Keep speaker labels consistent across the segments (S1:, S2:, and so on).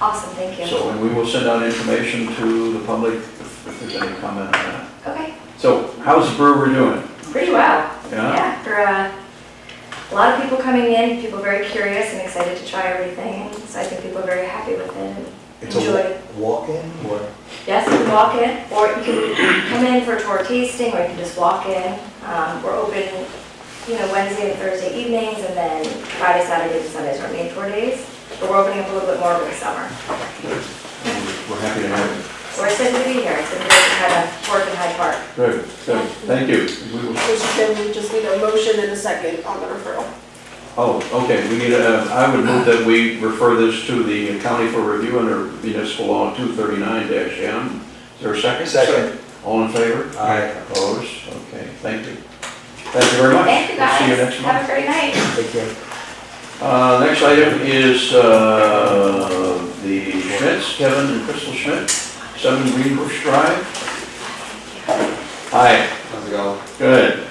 S1: Awesome, thank you.
S2: So, and we will send out information to the public if if there's any comment on that.
S1: Okay,
S2: So how's the brewer doing?
S1: pretty well.
S2: Yeah?
S1: Yeah, for uh, a lot of people coming in, people very curious and excited to try everything. So I think people are very happy with it and
S3: It's
S1: enjoy.
S3: a walk-in or?
S1: Yes, you can walk in, or you can come in for a tour tasting, or you can just walk in. Um, We're open, you know, Wednesday and Thursday evenings, and then Friday, Saturday, and Sundays are main tour days. But we're opening up a little bit more over the summer.
S2: We're happy to have you.
S1: So We're excited to be here. It's been great to kind of work in Hyde Park.
S2: Good, good. Thank you. We will-
S4: Mr. Chairman, we just need a motion and a second on the referral.
S2: Oh, okay, we need a, I would move that we refer this to the county for review under municipal law two thirty-nine M. Is there a second?
S3: Second.
S2: All in favor?
S3: Aye.
S2: Opposed? Okay, thank you. Thank you very much.
S1: Thank you
S2: We'll
S1: guys.
S2: See you next month.
S1: Have a great night.
S3: They can,
S2: Uh, Next item is uh, the Schmidts, Kevin and Crystal Schmidt, 7 Greenbush Drive. Hi,
S5: How's it going?
S2: good.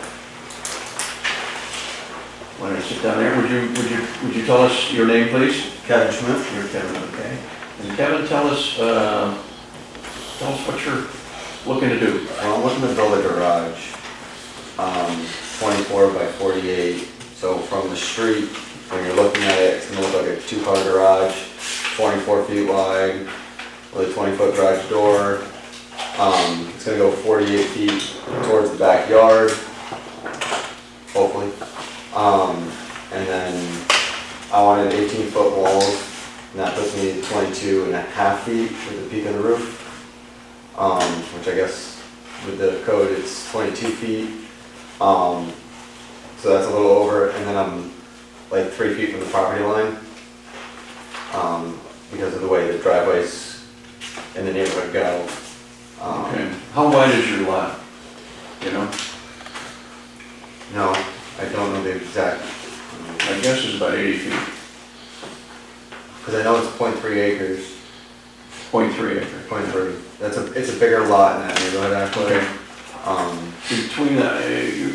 S2: Why don't you sit down there? Would you, would you, would you tell us your name, please?
S5: Kevin Schmidt.
S2: You're Kevin, okay. And Kevin, tell us, uh, tell us what you're looking to do.
S5: Well, I'm looking to build a garage, um, twenty-four by forty-eight. So from the street, when you're looking at it, it's gonna look like a two-car garage, twenty-four feet wide, with a twenty-foot garage door. Um, it's gonna go forty-eight feet towards the backyard, hopefully. Um, and then I wanted eighteen-foot walls, and that puts me at 22 and a half feet with the peak of the roof. um, which I guess with the code it's 22 feet. Um, so that's a little over, and then I'm like three feet from the property line um, because of the way the driveways in the neighborhood go. Um,
S2: Okay. How wide is your lot? You know,
S5: No, I don't know the exact
S2: I guess it's about 80 feet,
S5: because I know it's 0.3 acres,
S2: 0.3 acre.
S5: 0.3. That's a it's a bigger lot in that neighborhood actually.
S2: Okay.
S5: Um,
S2: between, the-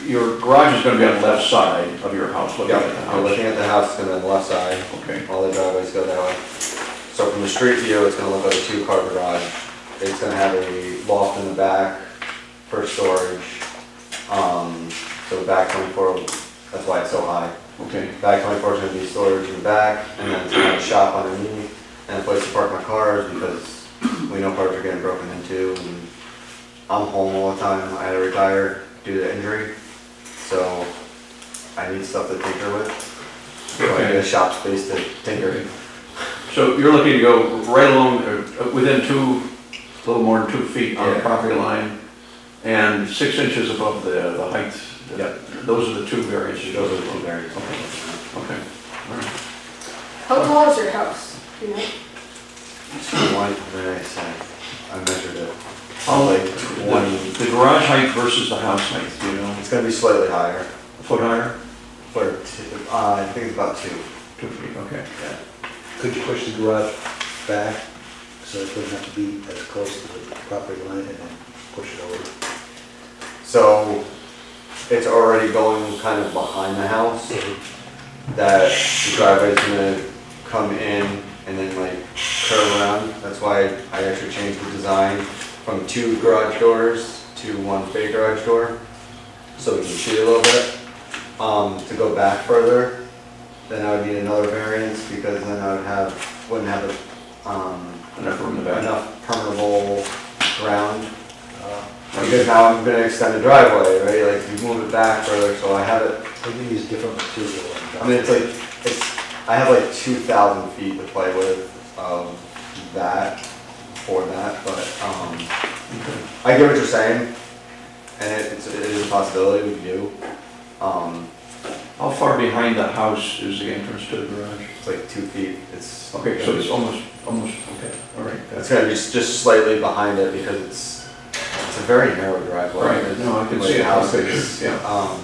S2: uh, your garage is going to be on the left side of your house, looking
S5: yeah,
S2: at the
S5: I'm looking
S2: house.
S5: at the house and then the left side.
S2: Okay,
S5: All the driveways go that way. So from the street view, it's gonna look like a two-car garage. It's gonna have a loft in the back for storage. Um, so the back twenty-four, that's why it's so high.
S2: okay,
S5: Back twenty-four is gonna be storage in the back, and then it's gonna have a shop underneath, and a place to park my cars, because we know cars are getting broken into, and I'm home all the time, I had to retire due to injury, so I need stuff to tinker with. So I need a shop space to tinker.
S2: so you're looking to go right along, uh, within two, a little more than two feet on the
S5: Yeah.
S2: property line, and six inches above the, the height.
S5: Yep.
S2: Those are the two variances.
S5: Those are the two variants.
S2: Okay, all right.
S4: How tall is your house? You know,
S5: One, very nice, uh, I measured it.
S2: How,
S5: Like
S2: the,
S5: one-
S2: the garage height versus the house height, do you know,
S5: It's gonna be slightly higher,
S2: a foot higher?
S5: but two- uh, I think it's about two.
S2: Two feet, okay.
S3: could you push the garage back so it doesn't have to be as close to the property line and then push it over?
S5: So it's already going kind of behind the house.
S3: Mm-hmm.
S5: That the driveway's gonna come in and then like curve around. That's why I actually changed the design from two garage doors to one big garage door. So we can see a little bit. Um, to go back further, then I would need another variance because then I would have, wouldn't have a, um,
S2: Enough room in the back.
S5: enough permeable ground. Uh, Because now I'm gonna extend the driveway, right, like you move it back further, so I have it,
S3: They can use different material. and-
S5: I mean, it's like, it's, I have like two thousand feet to play with of that, for that, but, um, I get what you're saying, and it- it's, it is a possibility we can do. Um,
S2: How far behind the house is the entrance to the garage?
S5: it's like two feet, it's.
S2: Okay, so it's almost, almost, okay, all right.
S5: It's gonna be s- just slightly behind it because it's, it's a very narrow driveway.
S2: Right, no, I can
S5: Like
S2: see it.
S5: Houses,
S2: Yeah.
S5: um,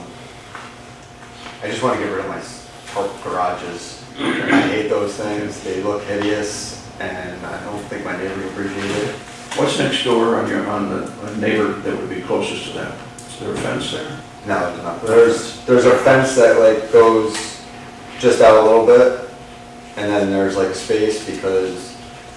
S5: I just wanna get rid of my s- park garages. I hate those things, they look hideous, and I don't think my neighbor appreciates it.
S2: What's next door on your, on the on neighbor that would be closest to that? Is there a fence there?
S5: No, there's not. There's, there's a fence that like goes just out a little bit, and then there's like space because